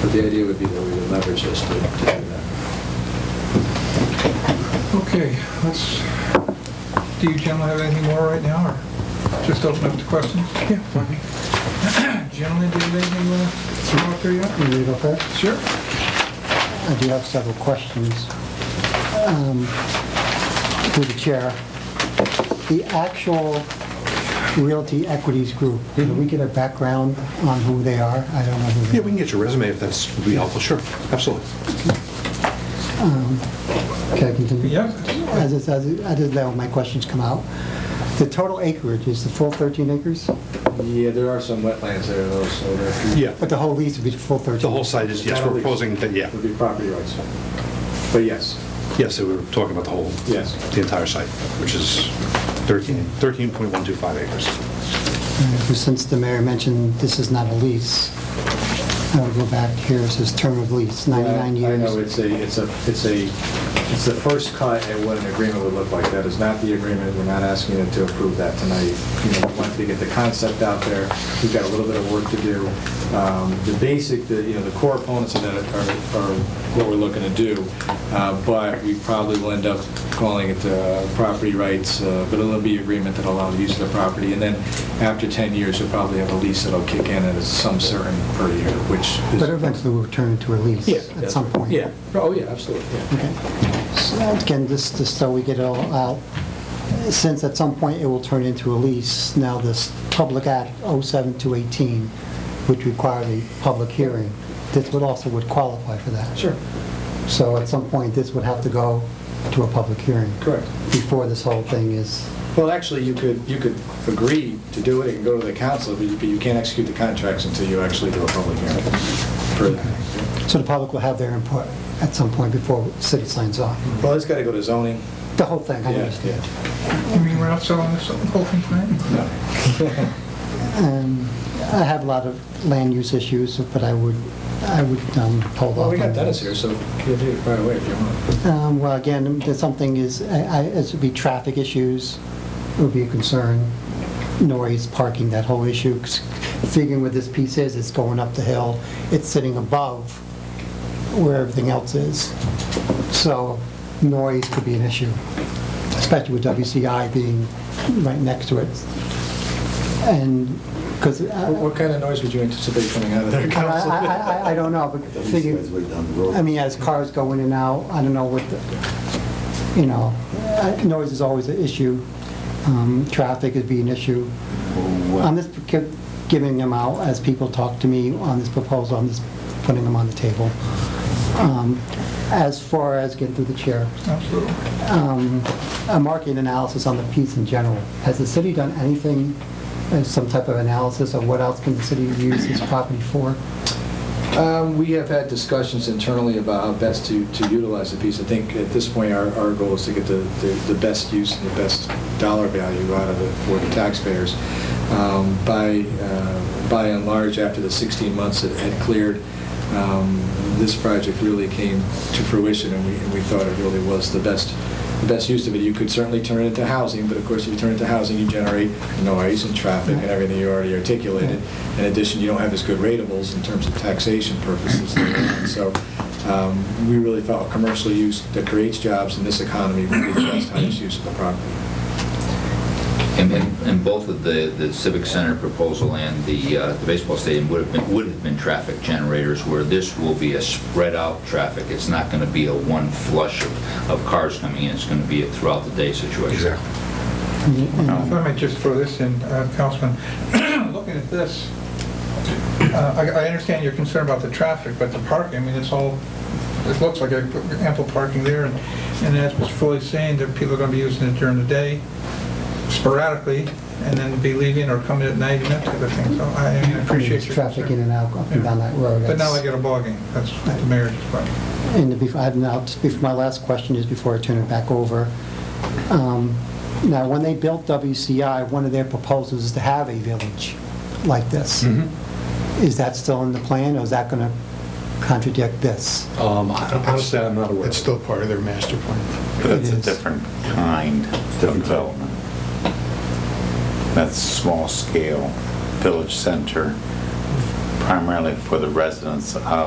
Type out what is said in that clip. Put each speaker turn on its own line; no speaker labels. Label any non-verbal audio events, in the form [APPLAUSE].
But the idea would be that we would leverage this to to do that.
Okay, let's, do you gentlemen have anything more right now, or just open up to questions? Yeah. [CLEARS THROAT] Gentlemen, do you have anything uh, you want to throw out there yet?
Can we go first?
Sure.
I do have several questions. Um, Through the chair, the actual Realty Equities Group, do we get a background on who they are? I don't know who
Yeah,
they
we can get your resume if that's, would be helpful, sure, absolutely.
are. Can I continue?
Yeah.
As it, as it, I did let my questions come out. The total acreage is the full 13 acres?
Yeah, there are some wetlands there though, so there are a few-
Yeah,
But the whole lease would be the full 13?
the whole site is, yes, we're proposing that, yeah,
would be property rights. But yes,
yes, we were talking about the whole,
Yes.
the entire site, which is 13, 13.125 acres.
Uh, Since the mayor mentioned this is not a lease, I'll go back here, it says term of lease, 99
I-
years.
I know, it's a, it's a, it's a, it's the first cut at what an agreement would look like. That is not the agreement, we're not asking you to approve that tonight. You know, we wanted to get the concept out there, we've got a little bit of work to do. Um, The basic, the, you know, the core components of that are, are what we're looking to do, Uh, but we probably will end up calling it uh, property rights, uh, but it'll be agreement that allow the use of the property, and then after 10 years, you'll probably have a lease that'll kick in at some certain per year, which is...
But eventually we'll turn into a lease at some point.
Yeah, oh, yeah, absolutely, yeah.
So Again, this, just so we get it all out, since at some point it will turn into a lease, now this Public Act 07218, which requires a public hearing, this would also would qualify for that.
Sure,
So at some point, this would have to go to a public hearing.
correct.
Before this whole thing is,
Well, actually, you could, you could agree to do it, and go to the council, but you- but you can't execute the contracts until you actually do a public hearing for that.
so the public will have their input at some point before city signs off.
Well, it's got to go to zoning.
The whole thing, I understand.
You mean we're not selling this whole thing tonight?
No.
Um, I have a lot of land use issues, but I would, I would um, hold off.
Well, we
on
got
that.
Dennis here, so you do it right away if you want.
Um, Well, again, there's something is, I- I- it would be traffic issues, it would be a concern, noise, parking, that whole issue. 'Cause Figuring where this piece is, it's going up the hill, it's sitting above where everything else is. So noise could be an issue, especially with WCI being right next to it. And, uh, because
What-
I
What kind of noise would you anticipate coming out of there,
I-
council?
I- I don't know, but figuring... I mean, as cars go in and out, I don't know what, the- you know, uh, noise is always an issue. Um, Traffic would be an issue. I'm just gi- giving them out as people talk to me on this proposal, I'm just putting them on the table. Um, As far as getting through the chair,
Absolutely.
um, a market analysis on the piece in general. Has the city done anything, uh, some type of analysis of what else can the city use this property for?
Um, We have had discussions internally about how best to to utilize the piece. I think at this point, our our goal is to get the the the best use and the best dollar value out of it for the taxpayers. Um, By uh, by and large, after the 16 months it had cleared, um, this project really came to fruition, and we and we thought it really was the best the best use of it. You could certainly turn it into housing, but of course, if you turn it into housing, you generate noise and traffic and everything you already articulated. In addition, you don't have as good ratables in terms of taxation purposes. So um, we really thought commercial use that creates jobs in this economy would be the best highest use of the property.
And, and and both of the, the Civic Center proposal and the, uh, the baseball stadium would have been, would have been traffic generators, where this will be a spread out traffic. It's not gonna be a one flush of, of cars coming in, it's gonna be a throughout the day situation.
If I might just throw this in, uh, Councilman, [COUGHS] looking at this, uh, I I understand your concern about the traffic, but the parking, I mean, it's all, it looks like ample parking there, and and as Mr. Foley's saying, that people are going to be using it during the day sporadically, and then be leaving or coming at night and that type of thing, so I I mean, I appreciate your
Traffic in
concern.
and out, up and down that road.
But now
that's-
they get a ballgame, that's what the mayor's point.
And bef- I've now, bef- my last question is before I turn it back over. Um, Now, when they built WCI, one of their proposals is to have a village like this.
Hmm.
Mm-hmm.
Is that still in the plan, or is that going to contradict this?
Um, Honestly, I'm not aware.
It's still part of their master plan.
But it's a
It is.
different kind of development. That's small scale, village center, primarily for the residents of